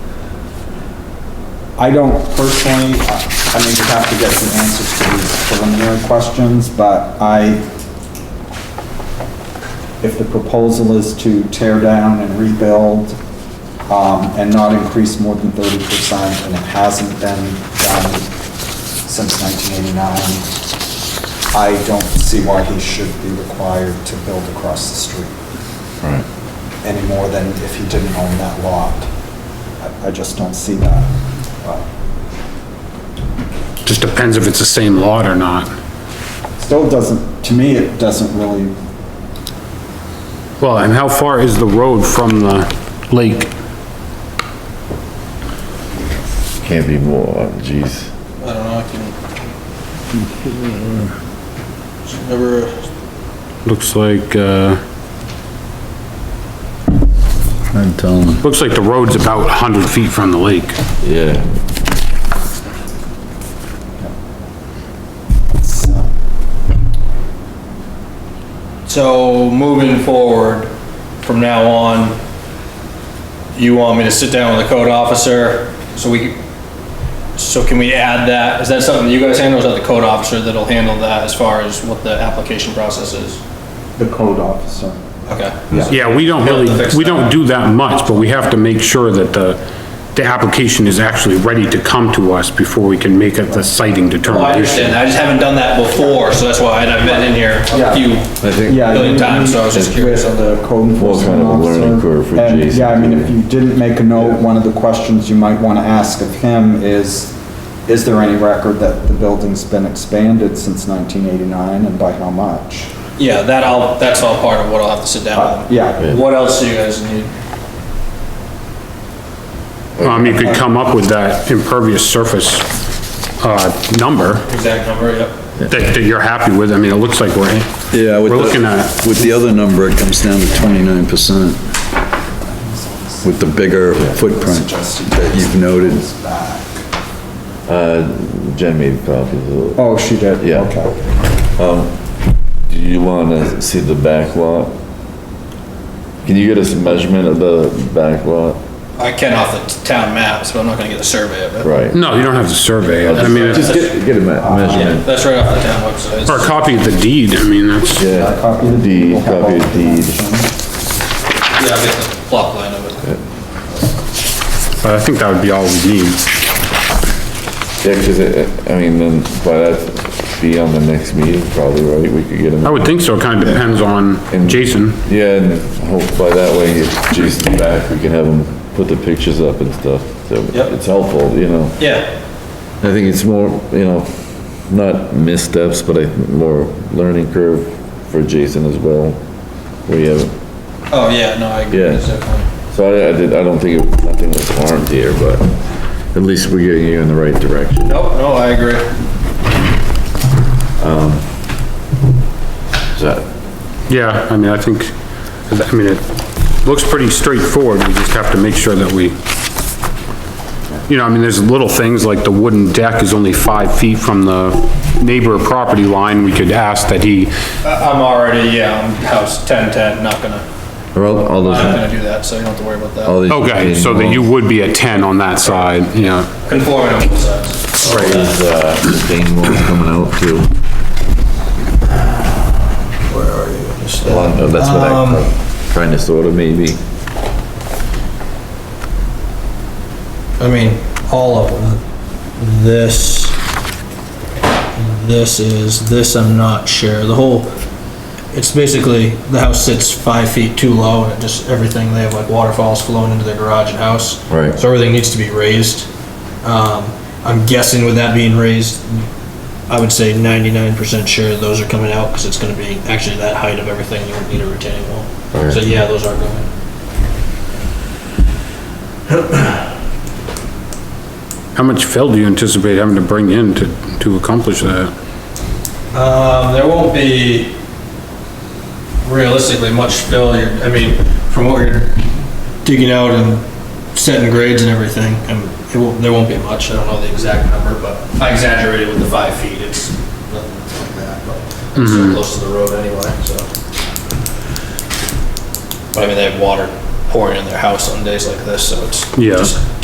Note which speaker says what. Speaker 1: I don't personally, uh, I I mean, we have to get some answers to these preliminary questions, but I, if the proposal is to tear down and rebuild, um, and not increase more than thirty percent, and it hasn't been done since nineteen eighty-nine, I don't see why he should be required to build across the street
Speaker 2: Right.
Speaker 1: any more than if he didn't own that lot. I- I just don't see that. Uh, But
Speaker 3: Just depends if it's the same lot or not.
Speaker 1: Still doesn't, to me, it doesn't really,
Speaker 3: Well, and how far is the road from the lake?
Speaker 2: Can't be more, oh, geez.
Speaker 4: I don't know, I can. Remember,
Speaker 3: Looks like, uh,
Speaker 2: I'm telling.
Speaker 3: looks like the road's about 100 feet from the lake.
Speaker 2: Yeah,
Speaker 1: it's, uh,
Speaker 4: so moving forward, from now on, you want me to sit down with the code officer, so we, so can we add that? Is that something you guys handle, or is that the code officer that'll handle that as far as what the application process is?
Speaker 1: the code officer.
Speaker 4: Okay,
Speaker 1: Yeah.
Speaker 3: Yeah, we don't really, we don't do that much, but we have to make sure that the, the application is actually ready to come to us before we can make a the siting
Speaker 4: well, I
Speaker 3: determination.
Speaker 4: understand, I just haven't done that before, so that's why, and I've been in here
Speaker 1: Yeah.
Speaker 4: a few
Speaker 2: I think.
Speaker 1: Yeah.
Speaker 4: Billion
Speaker 1: you
Speaker 4: times, so I
Speaker 1: meet
Speaker 4: was just curious
Speaker 1: with
Speaker 4: on
Speaker 1: The code enforcement
Speaker 2: kind of a learning curve
Speaker 1: officer.
Speaker 2: for
Speaker 1: And,
Speaker 2: Jason
Speaker 1: yeah, I mean,
Speaker 2: to-
Speaker 1: if you didn't make a note, one of the questions you might want to ask of him is, is there any record that the building's been expanded since 1989 and by how much?
Speaker 4: Yeah, that all, that's all part of what I'll have to sit down
Speaker 1: Uh,
Speaker 4: with.
Speaker 1: Yeah,
Speaker 4: What else do you guys need?
Speaker 3: Um, you could come up with that impervious surface, uh, number
Speaker 4: Exact number, yep.
Speaker 3: that, that you're happy with. I mean, it looks like we're,
Speaker 5: Yeah, with
Speaker 3: we're looking
Speaker 5: the,
Speaker 3: at,
Speaker 5: with the other number, it comes down to twenty-nine percent. With the bigger footprint that you've noted.
Speaker 2: Uh, Jen made copies of it.
Speaker 1: oh, she did,
Speaker 2: Yeah.
Speaker 1: okay.
Speaker 2: Do you wanna see the back lot? Can you get us a measurement of the back lot?
Speaker 4: I can off the town map, so I'm not gonna get a survey of it.
Speaker 2: Right.
Speaker 3: no, you don't have to survey it. I mean, it's-
Speaker 2: Just get, get a me-
Speaker 4: Yeah,
Speaker 2: measurement.
Speaker 4: that's right off the town website.
Speaker 3: or a copy of the deed. I mean, that's,
Speaker 2: Yeah.
Speaker 1: Copy the deed. we'll have all
Speaker 2: Copy
Speaker 1: the
Speaker 2: of deed.
Speaker 1: information.
Speaker 4: Yeah, I'll get the plot line of it.
Speaker 3: but I think that would be all we need.
Speaker 2: Yeah, cause it, I mean, then by that, be on the next meeting probably, right? We could get
Speaker 3: I
Speaker 2: him.
Speaker 3: would think so. It kind of depends on
Speaker 2: And-
Speaker 3: Jason.
Speaker 2: Yeah, and hope by that way, if Jason's back, we can have him put the pictures up and stuff. So
Speaker 4: Yep.
Speaker 2: it's helpful, you know?
Speaker 4: Yeah,
Speaker 2: I think it's more, you know, not missteps, but I, think more learning curve for Jason as well. We have,
Speaker 4: oh, yeah, no, I agree,
Speaker 2: Yeah.
Speaker 4: that's definitely.
Speaker 2: so I, I did, I don't think, it- nothing was harmed here, but at least we're getting you in the right direction.
Speaker 4: Nope, no, I agree.
Speaker 2: Is that,
Speaker 3: Yeah, I mean, I think, I mean, it looks pretty straightforward. We just have to make sure that we, you know, I mean, there's little things like the wooden deck is only five feet from the neighbor property line. We could ask that he,
Speaker 4: I- I'm already, yeah, I'm house ten ten, not gonna,
Speaker 2: are all, all
Speaker 4: I'm not
Speaker 2: those,
Speaker 4: gonna do that, so you don't have to worry about
Speaker 2: all
Speaker 4: that.
Speaker 2: these.
Speaker 3: okay, so that you would be at 10 on that side, yeah.
Speaker 4: Conforming on both sides.
Speaker 2: Right, is, uh, stain walls coming out too.
Speaker 4: Where are you? Just there.
Speaker 2: Well, That's what
Speaker 4: Um,
Speaker 2: I'm trying to sort of maybe.
Speaker 4: I mean, all of them. This, this is, this I'm not sure. The whole, it's basically, the house sits five feet too low and it just, everything, they have like waterfalls flowing into their garage and house.
Speaker 2: Right.
Speaker 4: So everything needs to be raised. Um, I'm guessing with that being raised, I would say ninety-nine percent sure those are coming out because it's gonna be actually that height of everything, you won't need a retaining wall.
Speaker 2: Right.
Speaker 4: So yeah, those are going.
Speaker 3: How much fill do you anticipate having to bring in to, to accomplish that?
Speaker 4: Um, there won't be realistically much failure, I mean, from what you're digging out and setting grades and everything, and it won't, there won't be much, I don't know the exact number, but I exaggerated with the five feet, it's nothing like that, but it's so close to the road anyway, so. But I mean, they have water pouring in their house on days like this, so it's
Speaker 3: Yeah.
Speaker 4: just